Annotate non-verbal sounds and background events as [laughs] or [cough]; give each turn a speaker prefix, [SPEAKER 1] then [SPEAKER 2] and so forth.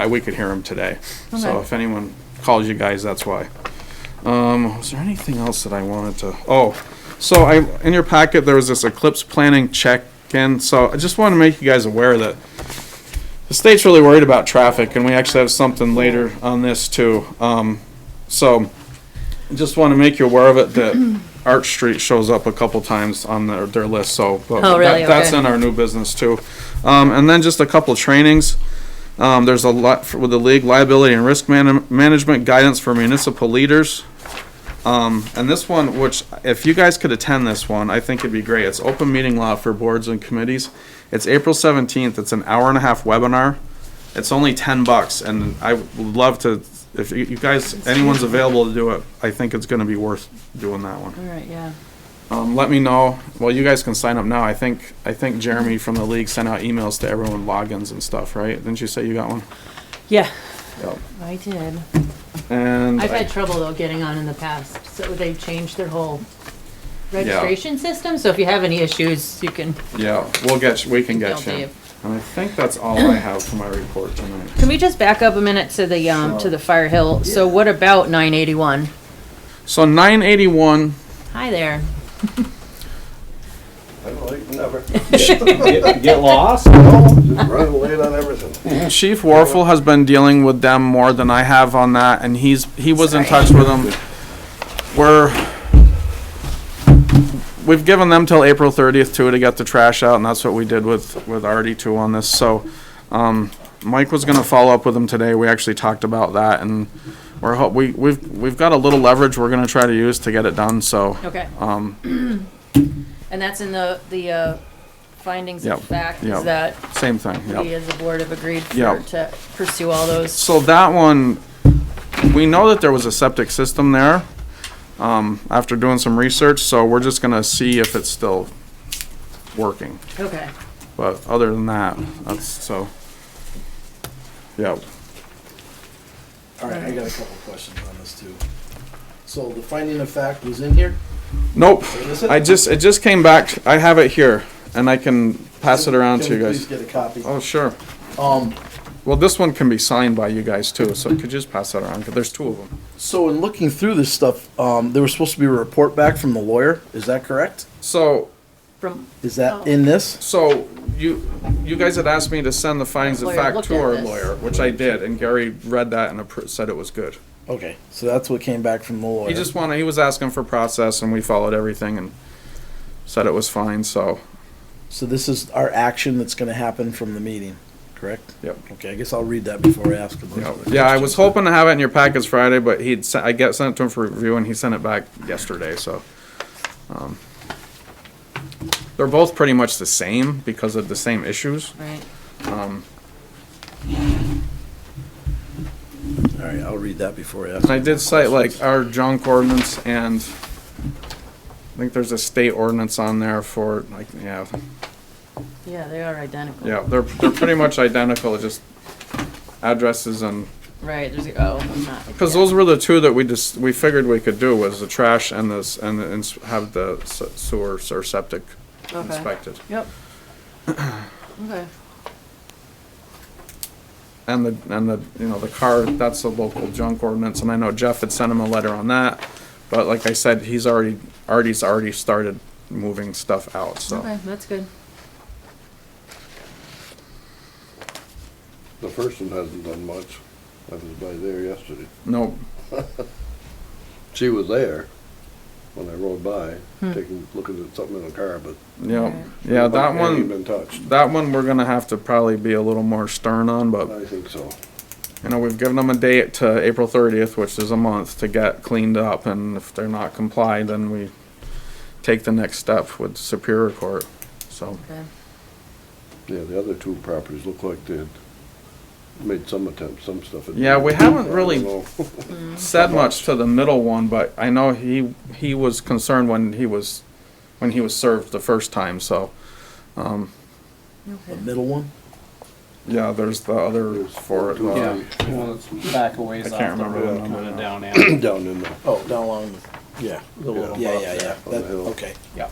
[SPEAKER 1] I, we could hear them today.
[SPEAKER 2] Okay.
[SPEAKER 1] So if anyone calls you guys, that's why. Um, was there anything else that I wanted to, oh, so I, in your packet, there was this eclipse planning check-in, so I just want to make you guys aware that the state's really worried about traffic, and we actually have something later on this too. Um, so, I just want to make you aware of it, that [clears throat] Arch Street shows up a couple times on their, their list, so. but
[SPEAKER 2] Oh, really?
[SPEAKER 1] that- That's
[SPEAKER 2] Okay.
[SPEAKER 1] in our new business too. Um, and then just a couple trainings. Um, there's a lot for- with the league liability and risk man- management guidance for municipal leaders. Um, and this one, which if you guys could attend this one, I think it'd be great. It's open meeting law for boards and committees. It's April seventeenth. It's an hour and a half webinar. It's only ten bucks, and I would love to. If you you guys, anyone's available to do it, I think it's going to be worth doing that one.
[SPEAKER 2] All right, yeah.
[SPEAKER 1] Um, let me know. Well, you guys can sign up now. I think I think Jeremy from the league sent out emails to everyone, logins and stuff, right? Didn't you say you got one?
[SPEAKER 2] Yeah,
[SPEAKER 1] Yep.
[SPEAKER 2] I did.
[SPEAKER 1] And
[SPEAKER 3] I've
[SPEAKER 1] I-
[SPEAKER 3] had trouble though getting on in the past, so they changed their whole registration system, so if you have any issues, you can
[SPEAKER 1] yeah, we'll get you- we can
[SPEAKER 3] Email
[SPEAKER 1] get you.
[SPEAKER 3] Dave.
[SPEAKER 1] And I think that's all I have for my report tonight.
[SPEAKER 3] Can we just back up a minute to the, um, to
[SPEAKER 1] Sure.
[SPEAKER 3] the Fire Hill? So what about nine eighty-one?
[SPEAKER 1] So 981.
[SPEAKER 3] Hi there.
[SPEAKER 4] I don't like, never.
[SPEAKER 5] Get get
[SPEAKER 4] [laughs]
[SPEAKER 5] lost?
[SPEAKER 4] Just running late on everything.
[SPEAKER 1] Chief Warfel has been dealing with them more than I have on that, and he's, he was in touch with them. We're, we've given them till April thirtieth too to get the trash out, and that's what we did with, with Artie too on this, so. Um, Mike was gonna follow up with him today, we actually talked about that, and we're, ho- we, we've, we've got a little leverage we're gonna try to use to get it done, so.
[SPEAKER 3] Okay.
[SPEAKER 1] Um,
[SPEAKER 3] [clears throat] And that's in the, the, uh, findings of
[SPEAKER 1] Yep,
[SPEAKER 3] fact,
[SPEAKER 1] yep.
[SPEAKER 3] is that
[SPEAKER 1] same thing, yep.
[SPEAKER 3] we as a board have agreed for,
[SPEAKER 1] Yep.
[SPEAKER 3] to pursue all those.
[SPEAKER 1] So that one, we know that there was a septic system there, um, after doing some research, so we're just gonna see if it's still working.
[SPEAKER 3] Okay.
[SPEAKER 1] But other than that, that's, so, yeah.
[SPEAKER 6] All right, I got a couple questions on this too. So the finding of fact was in here?
[SPEAKER 1] Nope,
[SPEAKER 6] Is it?
[SPEAKER 1] I just, it just came back, I have it here, and I can pass it around to
[SPEAKER 6] Can
[SPEAKER 1] you
[SPEAKER 6] we
[SPEAKER 1] guys.
[SPEAKER 6] Please get a copy.
[SPEAKER 1] Oh, sure.
[SPEAKER 6] Um,
[SPEAKER 1] Well, this one can be signed by you guys too, so could you just pass that around, 'Cause there's two of them.
[SPEAKER 6] so in looking through this stuff, um, there was supposed to be a report back from the lawyer. Is that correct?
[SPEAKER 1] So,
[SPEAKER 3] From,
[SPEAKER 6] Is that in this?
[SPEAKER 1] So you, you guys had asked me to send the findings of
[SPEAKER 3] Lawyer
[SPEAKER 1] fact
[SPEAKER 3] looked
[SPEAKER 1] to
[SPEAKER 3] at
[SPEAKER 1] our
[SPEAKER 3] this.
[SPEAKER 1] lawyer, which I did, and Gary read that and appro- said it was good.
[SPEAKER 6] Okay, so that's what came back from the lawyer.
[SPEAKER 1] He just wanted, he was asking for process and we followed everything and said it was fine, so,
[SPEAKER 6] So this is our action that's gonna happen from the meeting, correct?
[SPEAKER 1] yep.
[SPEAKER 6] Okay, I guess I'll read that before I ask a bunch
[SPEAKER 1] Yep.
[SPEAKER 6] of
[SPEAKER 1] Yeah, I was hoping to have it in your packets Friday, but he'd, se- I get, sent it to him for review and he sent it back yesterday, so. um, They're both pretty much the same because of the same issues.
[SPEAKER 3] right.
[SPEAKER 1] Um,
[SPEAKER 6] All right, I'll read that before I ask.
[SPEAKER 1] And I did cite like our junk ordinance and I think there's a state ordinance on there for like, yeah,
[SPEAKER 3] Yeah, they are identical.
[SPEAKER 1] yeah, they're, they're pretty much identical, just addresses and,
[SPEAKER 3] Right, there's, oh, I'm not.
[SPEAKER 1] cause those were the two that we just, we figured we could do was the trash and this, and the ins- have the se- sewer or septic
[SPEAKER 3] Okay.
[SPEAKER 1] inspected.
[SPEAKER 3] Yep. Okay.
[SPEAKER 1] And the, and the, you know, the car, that's the local junk ordinance, and I know Jeff had sent him a letter on that. But like I said, he's already, Artie's already started moving stuff out, so.
[SPEAKER 3] Okay, that's good.
[SPEAKER 4] The first one hasn't done much. I was by there yesterday.
[SPEAKER 1] Nope,
[SPEAKER 4] She was there when I rode by, taking, looking at something in the car, but.
[SPEAKER 1] Yep.
[SPEAKER 3] Right.
[SPEAKER 1] Yeah, that
[SPEAKER 4] hadn't even
[SPEAKER 1] one,
[SPEAKER 4] Been touched.
[SPEAKER 1] that one we're gonna have to probably be a little more stern on, but,
[SPEAKER 4] I think so.
[SPEAKER 1] you know, we've given them a date to April thirtieth, which is a month, to get cleaned up, and if they're not complied, then we take the next step with Superior Court, so.
[SPEAKER 3] Okay.
[SPEAKER 4] Yeah, the other two properties look like they'd made some attempt, some stuff. had been-
[SPEAKER 1] Yeah, we haven't
[SPEAKER 4] I don't
[SPEAKER 1] really-
[SPEAKER 4] know.
[SPEAKER 1] Said much to the middle one, but I know he, he was concerned when he was, when he was served the first time, so. Um,
[SPEAKER 6] The middle one?
[SPEAKER 1] yeah, there's the other [laughs]
[SPEAKER 4] There's
[SPEAKER 1] for it,
[SPEAKER 4] two,
[SPEAKER 1] uh,
[SPEAKER 5] Yeah, well, it's back a ways
[SPEAKER 1] I
[SPEAKER 5] off
[SPEAKER 1] can't
[SPEAKER 5] the
[SPEAKER 1] remember the
[SPEAKER 5] road,
[SPEAKER 1] number
[SPEAKER 5] kinda
[SPEAKER 1] now.
[SPEAKER 5] down alley.
[SPEAKER 4] [clears throat] Down in the,
[SPEAKER 6] Oh, down along, the- yeah, the little,
[SPEAKER 4] Yeah.
[SPEAKER 6] yeah, yeah, yeah,
[SPEAKER 4] On the
[SPEAKER 6] That-
[SPEAKER 4] hill.
[SPEAKER 6] okay.
[SPEAKER 5] Yeah.